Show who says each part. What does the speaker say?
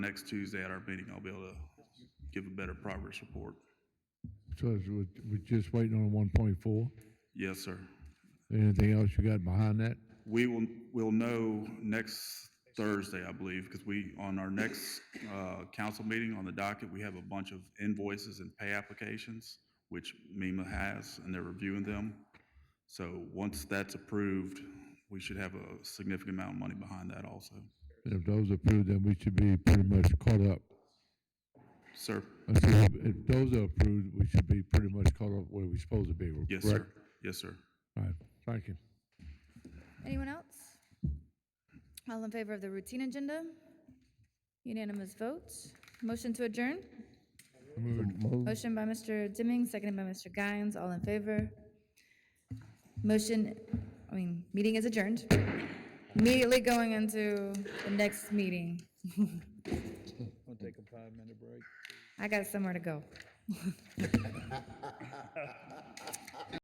Speaker 1: next Tuesday at our meeting, I'll be able to give a better progress report.
Speaker 2: So it's- we're we're just waiting on 1.4.
Speaker 1: Yes, sir.
Speaker 2: Anything else you got behind that?
Speaker 1: We will, will know next Thursday, I believe, because we, on our next uh, council meeting on the docket, we have a bunch of invoices and pay applications, which MEMA has, and they're reviewing them. So once that's approved, we should have a significant amount of money behind that also.
Speaker 2: If those are approved, then we should be pretty much caught up.
Speaker 1: Sir?
Speaker 2: I said If if those are approved, we should be pretty much caught up where we're supposed to be.
Speaker 1: Yes,
Speaker 2: correct?
Speaker 1: sir. Yes, sir.
Speaker 2: All right, thank you.
Speaker 3: Anyone else? All in favor of the routine agenda? Unanimous vote. Motion to adjourn? Motion by Mr. Dimming, seconded by Mr. Guines. All in favor? Motion, I mean, meeting is adjourned. Immediately going into the next meeting.
Speaker 4: I'll take a five-minute break.
Speaker 3: I got somewhere to go.